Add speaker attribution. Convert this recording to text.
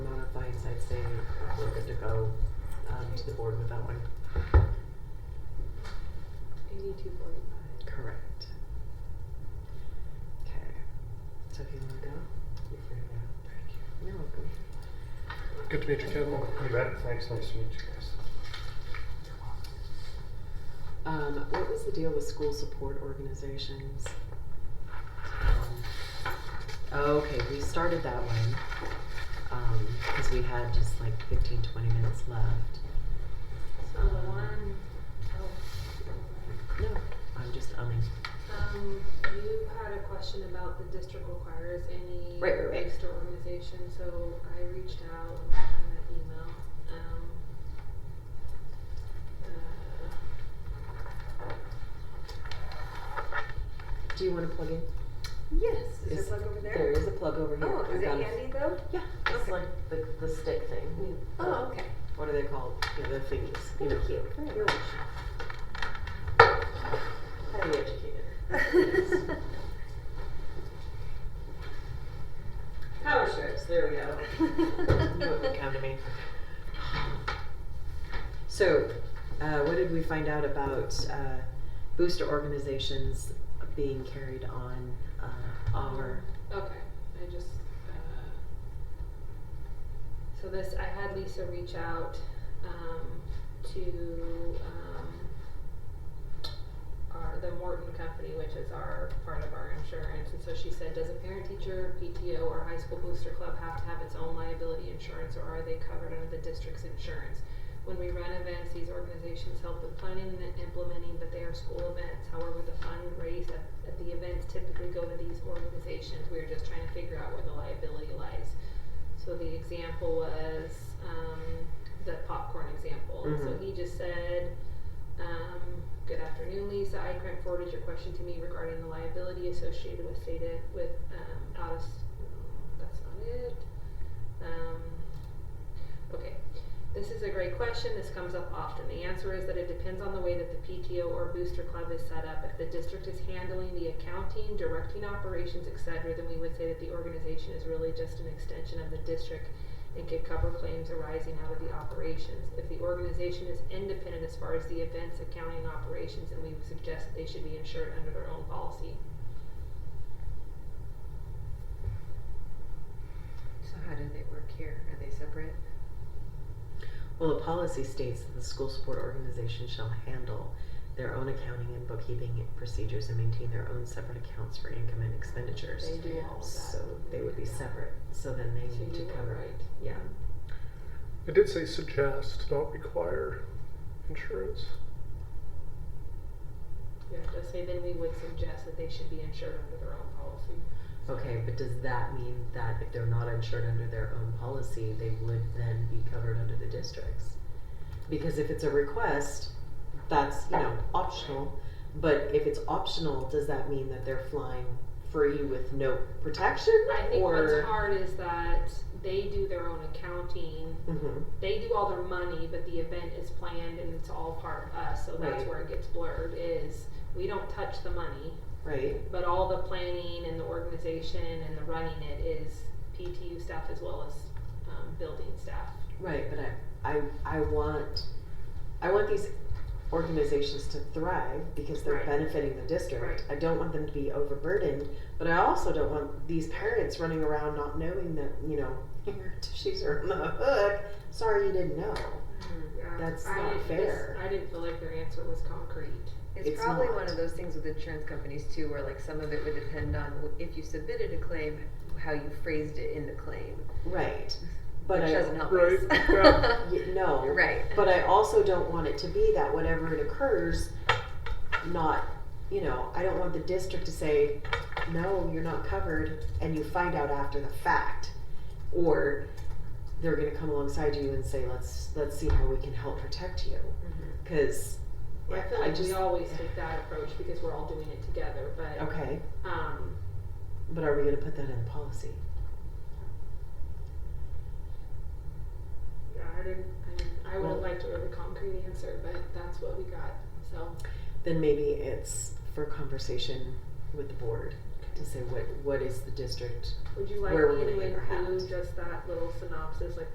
Speaker 1: go um, to the board with that one.
Speaker 2: Eighty-two forty-five.
Speaker 1: Correct. Okay. So if you want to go, you figure it out. Thank you. You're welcome.
Speaker 3: Good to meet you, Kevin.
Speaker 4: You bet. Thanks. Nice to meet you guys.
Speaker 1: Um, what was the deal with school support organizations? Um, Okay, we started that one, um, cause we had just like 15, 20 minutes left.
Speaker 2: So the one, oh.
Speaker 1: No, I'm just umming.
Speaker 2: Um, you had a question about the district requires any
Speaker 1: Right, right, right.
Speaker 2: registered organization, so I reached out and sent an email, um. uh,
Speaker 1: Do you wanna plug in?
Speaker 5: Yes,
Speaker 1: Is-
Speaker 5: is there a plug over there?
Speaker 1: There is a plug over here.
Speaker 5: Oh,
Speaker 1: I've
Speaker 5: is it
Speaker 1: got a-
Speaker 5: handy though?
Speaker 1: Yeah, it's
Speaker 5: Okay.
Speaker 1: like the, the stick thing.
Speaker 5: Oh,
Speaker 2: Uh-huh.
Speaker 5: okay.
Speaker 1: What are they called? Yeah, the thingies. you know.
Speaker 5: Thank you. You're
Speaker 1: Highly educated.
Speaker 5: welcome.
Speaker 1: Power strips, there we go. Knew it would come to me. So, uh, what did we find out about uh, booster organizations being carried on uh, our?
Speaker 2: Okay, I just, uh, so this, I had Lisa reach out, um, to, um, our, uh, the Morton Company, which is our, part of our insurance, and so she said, does a parent teacher, PTO, or high school booster club have to have its own liability insurance, or are they covered under the district's insurance? When we run events, these organizations help with planning and implementing, but they are school events. However, the fund raised at, at the events typically go to these organizations. We are just trying to figure out where the liability lies. So the example was, um, the popcorn example. So
Speaker 1: Mhm.
Speaker 2: he just said, um, good afternoon, Lisa. I Grant forwarded your question to me regarding the liability associated with stated with, um, out of, s- no, that's not it. Um, okay. This is a great question. This comes up often. The answer is that it depends on the way that the PTO or booster club is set up. If the district is handling the accounting, directing operations, etc., then we would say that the organization is really just an extension of the district and could cover claims arising out of the operations. If the organization is independent as far as the events, accounting, and operations, then we would suggest that they should be insured under their own policy.
Speaker 5: So how do they work here? Are they separate?
Speaker 1: Well, the policy states that the school support organization shall handle their own accounting and bookkeeping procedures and maintain their own separate accounts for income and expenditures.
Speaker 2: They do all of that.
Speaker 1: So they would be separate. So then they
Speaker 2: So
Speaker 1: need to
Speaker 2: you are
Speaker 1: cover it.
Speaker 2: right.
Speaker 1: Yeah.
Speaker 3: I did say suggest, not require insurance.
Speaker 2: Yeah, just say then we would suggest that they should be insured under their own policy.
Speaker 1: Okay, but does that mean that if they're not insured under their own policy, they would then be covered under the districts? Because if it's a request, that's, you know, optional, but if it's optional, does that mean that they're flying free with no protection
Speaker 2: I think what's
Speaker 1: or?
Speaker 2: hard is that they do their own accounting.
Speaker 1: Mhm.
Speaker 2: They do all their money, but the event is planned and it's all part of us. So that's
Speaker 1: Right.
Speaker 2: where it gets blurred. Is we don't touch the money,
Speaker 1: right,
Speaker 2: but all the planning and the organization and the running it is PTU staff as well as um, building staff.
Speaker 1: right, but I, I, I want, I want these organizations to thrive because they're
Speaker 2: Right.
Speaker 1: benefiting the district. I don't want them to be overburdened, but I also don't want these parents running around not knowing that, you know, your tissues are on the hook. Sorry you didn't know.
Speaker 2: Yeah,
Speaker 1: Mm, That's
Speaker 2: Um, I
Speaker 1: not
Speaker 2: didn't- this-
Speaker 1: fair.
Speaker 2: I didn't feel like their answer was concrete.
Speaker 5: It's,
Speaker 1: It's
Speaker 5: probably
Speaker 1: not.
Speaker 5: one of those things with insurance companies too, where like some of it would depend on w- if you submitted a claim, how you phrased it in the claim,
Speaker 1: Right. But
Speaker 5: which
Speaker 1: I,
Speaker 5: doesn't help
Speaker 3: Right,
Speaker 5: us.
Speaker 3: yeah.
Speaker 1: y- no.
Speaker 5: Right.
Speaker 1: But I also don't want it to be that whatever it occurs, not, you know, I don't want the district to say, no, you're not covered, and you find out after the fact. Or they're gonna come alongside you and say, let's, let's see how we can help protect you,
Speaker 5: Mm-hmm.
Speaker 1: cause,
Speaker 2: I
Speaker 1: yeah,
Speaker 2: feel
Speaker 1: I
Speaker 2: like we
Speaker 1: just,
Speaker 2: always take that approach because we're all doing it together. But
Speaker 1: okay,
Speaker 2: um,
Speaker 1: but are we gonna put that in the policy?
Speaker 2: Yeah, I didn't, I didn't, I would
Speaker 1: Well-
Speaker 2: have liked a really concrete answer, but that's what we got, so.
Speaker 1: Then maybe it's for conversation with the board, to say what, what is the district
Speaker 2: Would you like
Speaker 1: Where we're
Speaker 2: me
Speaker 1: gonna
Speaker 2: to
Speaker 1: hang our hat.
Speaker 2: include just that little synopsis, like